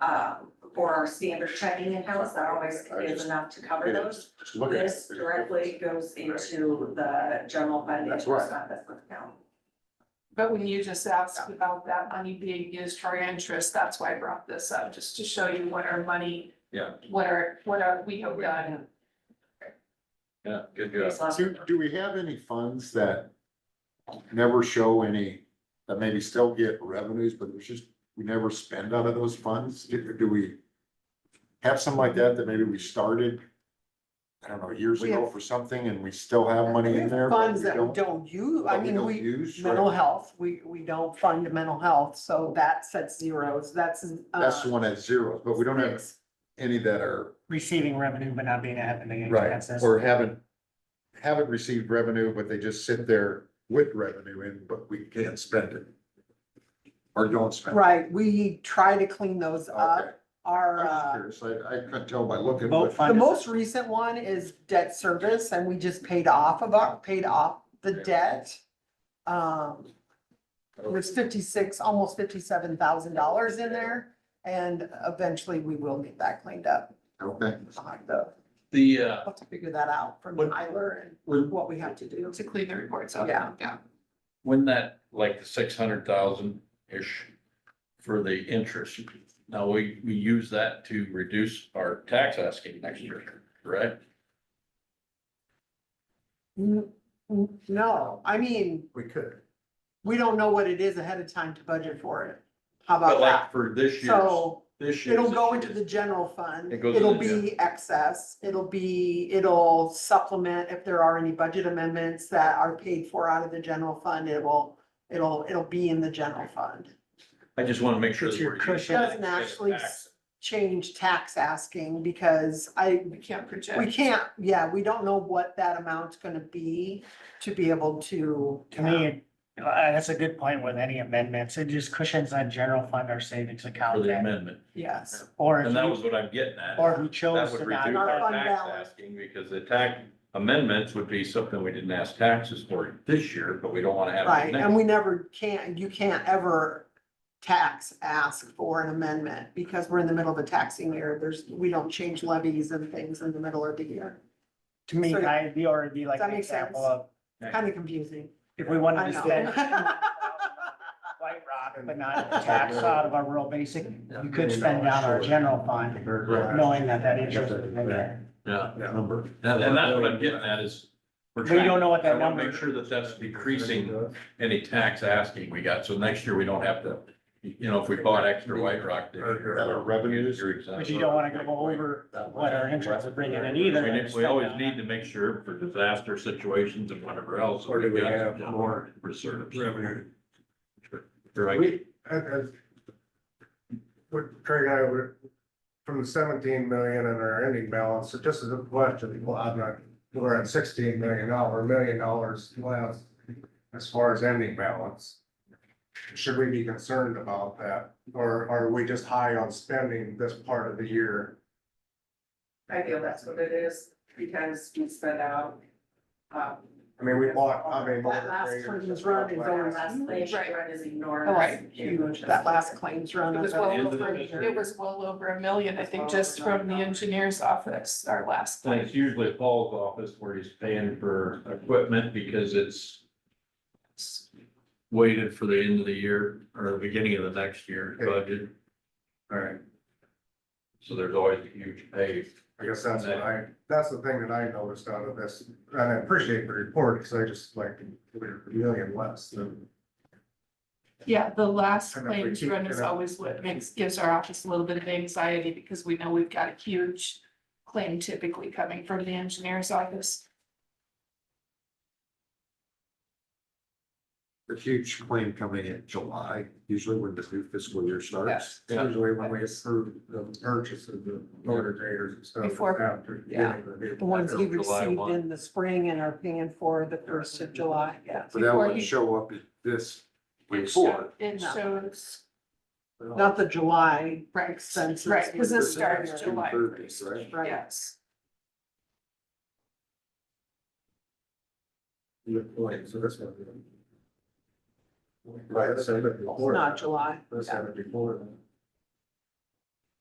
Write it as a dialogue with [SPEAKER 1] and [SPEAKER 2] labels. [SPEAKER 1] uh, for our standard checking accounts, that always
[SPEAKER 2] I
[SPEAKER 1] is
[SPEAKER 2] just-
[SPEAKER 1] enough to cover those.
[SPEAKER 2] Just look at it.
[SPEAKER 1] This directly goes into the general fund.
[SPEAKER 2] That's right.
[SPEAKER 1] investment account.
[SPEAKER 3] But when you just asked about that money being used for interest, that's why I brought this up, just to show you what our money.
[SPEAKER 4] Yeah.
[SPEAKER 3] What our, what our, we have done.
[SPEAKER 4] Yeah, good
[SPEAKER 1] It's not-
[SPEAKER 2] Do, do we have any funds that never show any, that maybe still get revenues, but there's just, we never spend out of those funds? Do do we have something like that that maybe we started, I don't know, years
[SPEAKER 5] We
[SPEAKER 2] ago
[SPEAKER 5] have-
[SPEAKER 2] for something and we still have money in there? but
[SPEAKER 5] Funds that we don't use, I
[SPEAKER 2] but
[SPEAKER 5] mean,
[SPEAKER 2] don't
[SPEAKER 5] we,
[SPEAKER 2] use, right?
[SPEAKER 5] mental health, we, we don't fund mental health, so that sets zeros, that's. uh,
[SPEAKER 2] That's the one at zero, but we don't have
[SPEAKER 5] six.
[SPEAKER 2] any that are,
[SPEAKER 6] receiving revenue but not being having any
[SPEAKER 2] right,
[SPEAKER 6] expenses.
[SPEAKER 2] or haven't, haven't received revenue, but they just sit there with revenue in, but we can't spend it. Or don't spend. it.
[SPEAKER 5] Right, we try to clean those
[SPEAKER 2] Okay.
[SPEAKER 5] up, our,
[SPEAKER 2] I
[SPEAKER 5] uh,
[SPEAKER 2] was curious, I, I couldn't tell by looking,
[SPEAKER 6] Vote
[SPEAKER 2] but
[SPEAKER 6] fund
[SPEAKER 5] the
[SPEAKER 6] is-
[SPEAKER 5] most recent one is debt service, and we just paid off of our, paid off the debt. Um, it was fifty-six, almost fifty-seven thousand dollars in there, and eventually we will get that cleaned up.
[SPEAKER 2] okay,
[SPEAKER 5] I'll have to,
[SPEAKER 4] The, uh,
[SPEAKER 5] I'll have to figure that out from
[SPEAKER 4] What-
[SPEAKER 5] Tyler and
[SPEAKER 4] when,
[SPEAKER 5] what we have to do.
[SPEAKER 3] To clean the reports up.
[SPEAKER 5] Yeah.
[SPEAKER 3] Yeah.
[SPEAKER 4] when that, like the six hundred thousand-ish for the interest, now we, we use that to reduce our tax asking next year, correct?
[SPEAKER 5] N- n- No, I mean,
[SPEAKER 2] we could.
[SPEAKER 5] we don't know what it is ahead of time to budget for it. How
[SPEAKER 4] But
[SPEAKER 5] about
[SPEAKER 4] like
[SPEAKER 5] that?
[SPEAKER 4] for this year's,
[SPEAKER 5] So
[SPEAKER 4] this year's.
[SPEAKER 5] it'll go into the general fund.
[SPEAKER 4] It goes in
[SPEAKER 5] It'll
[SPEAKER 4] the gen-
[SPEAKER 5] be excess. It'll be, it'll supplement if there are any budget amendments that are paid for out of the general fund. It will, it'll, it'll be in the general fund.
[SPEAKER 4] I just want to make sure.
[SPEAKER 6] It's
[SPEAKER 4] that
[SPEAKER 6] your
[SPEAKER 4] we're
[SPEAKER 6] cushion.
[SPEAKER 4] using-
[SPEAKER 5] Doesn't actually s- Change tax asking because I,
[SPEAKER 3] We can't project.
[SPEAKER 5] we can't, yeah, we don't know what that amount's gonna be to be able to.
[SPEAKER 6] To me, uh, that's a good point with any amendments. It just cushions that general fund or savings
[SPEAKER 4] For
[SPEAKER 6] account.
[SPEAKER 4] the
[SPEAKER 6] then.
[SPEAKER 4] amendment,
[SPEAKER 5] Yes.
[SPEAKER 6] Or if
[SPEAKER 4] and that
[SPEAKER 6] you,
[SPEAKER 4] was what I'm getting at.
[SPEAKER 6] or who chose
[SPEAKER 4] That would
[SPEAKER 6] to
[SPEAKER 4] reduce
[SPEAKER 6] not.
[SPEAKER 4] our
[SPEAKER 5] Fund
[SPEAKER 4] tax
[SPEAKER 5] balance.
[SPEAKER 4] asking, because the tax amendments would be something we didn't ask taxes for this year, but we don't want to have. it
[SPEAKER 5] Right,
[SPEAKER 4] next
[SPEAKER 5] and we never can, you can't ever tax, ask for an amendment, because we're in the middle of a taxing year, there's, we don't change levies and things in the middle of the year.
[SPEAKER 6] To me,
[SPEAKER 5] So-
[SPEAKER 6] I'd be, or it'd be like
[SPEAKER 5] Does that
[SPEAKER 6] an
[SPEAKER 5] make
[SPEAKER 6] example
[SPEAKER 5] sense?
[SPEAKER 6] of,
[SPEAKER 4] year.
[SPEAKER 5] Kind of confusing,
[SPEAKER 6] if we
[SPEAKER 5] I
[SPEAKER 6] wanted to spend
[SPEAKER 5] know.
[SPEAKER 6] White Rock, but not tax out of our rural basic, you could spend down our general fund, knowing that that interest is in there.
[SPEAKER 4] Yeah,
[SPEAKER 2] Number.
[SPEAKER 4] and, and that's what I'm getting at is. we're
[SPEAKER 6] But you
[SPEAKER 4] trying-
[SPEAKER 6] don't know what that
[SPEAKER 4] I want to
[SPEAKER 6] number
[SPEAKER 4] Make sure that that's decreasing any tax asking we got, so next year we don't have to, you know, if we bought extra White Rock. this year,
[SPEAKER 2] That are revenues?
[SPEAKER 4] you're exempt.
[SPEAKER 6] But you don't wanna go over what our interest is bringing in either.
[SPEAKER 4] We need-
[SPEAKER 6] and
[SPEAKER 4] we always
[SPEAKER 6] spend on
[SPEAKER 4] need to make sure for disaster situations and whatever else.
[SPEAKER 7] Or do we have
[SPEAKER 4] more reserves?
[SPEAKER 7] revenue?
[SPEAKER 4] Right.
[SPEAKER 7] We, as, as what Craig and I were, from the seventeen million in our ending balance, so just as a question, well, I'm not, we're at sixteen million dollar, million dollars less as far as ending balance. Should we be concerned about that, or are we just high on spending this part of the year?
[SPEAKER 1] I feel that's what it is, because we spent out. um,
[SPEAKER 7] I mean, we bought, I mean.
[SPEAKER 5] That last Clinton's run is
[SPEAKER 1] Our
[SPEAKER 5] always
[SPEAKER 1] last
[SPEAKER 5] huge.
[SPEAKER 1] nation run is enormous.
[SPEAKER 5] Right, huge, that last claims run.
[SPEAKER 3] It
[SPEAKER 5] of
[SPEAKER 3] was
[SPEAKER 5] the-
[SPEAKER 3] well
[SPEAKER 4] End of
[SPEAKER 3] over,
[SPEAKER 4] the
[SPEAKER 3] it was well over a million, I think, just from the engineer's office, our last.
[SPEAKER 4] And it's usually Paul's office where he's paying for equipment because it's waited for the end of the year or the beginning of the next year budget.
[SPEAKER 7] All right,
[SPEAKER 4] So there's always a huge pay.
[SPEAKER 7] I guess that's what I, that's the thing that I noticed out of this, and I appreciate the report, because I just like, we're a million less than.
[SPEAKER 3] Yeah, the last
[SPEAKER 7] And if we
[SPEAKER 3] claims
[SPEAKER 7] keep
[SPEAKER 3] run is
[SPEAKER 7] it up-
[SPEAKER 3] always what makes, gives our office a little bit of anxiety because we know we've got a huge claim typically coming from the engineer's office.
[SPEAKER 2] A huge claim coming in July, usually when the new fiscal year starts.
[SPEAKER 4] Yeah.
[SPEAKER 7] Usually when we approve the purchase of the motor graders and stuff.
[SPEAKER 3] Before-
[SPEAKER 7] after the beginning of
[SPEAKER 5] The ones he
[SPEAKER 4] July
[SPEAKER 5] received
[SPEAKER 4] one.
[SPEAKER 5] in the spring and are paying for the first of July, yeah.
[SPEAKER 2] But that
[SPEAKER 3] Before
[SPEAKER 2] would
[SPEAKER 3] you-
[SPEAKER 2] show up in this
[SPEAKER 3] It
[SPEAKER 2] report.
[SPEAKER 3] show- It
[SPEAKER 5] No.
[SPEAKER 3] shows,
[SPEAKER 5] Not the July
[SPEAKER 3] right,
[SPEAKER 5] census.
[SPEAKER 3] right, because it
[SPEAKER 5] this
[SPEAKER 3] starts July
[SPEAKER 2] June 30th,
[SPEAKER 3] first,
[SPEAKER 2] right?
[SPEAKER 5] Right.
[SPEAKER 3] yes.
[SPEAKER 7] the- So this one. Right, so the
[SPEAKER 5] Not
[SPEAKER 7] before,
[SPEAKER 5] July.
[SPEAKER 7] this
[SPEAKER 5] yeah.
[SPEAKER 7] happened before. then.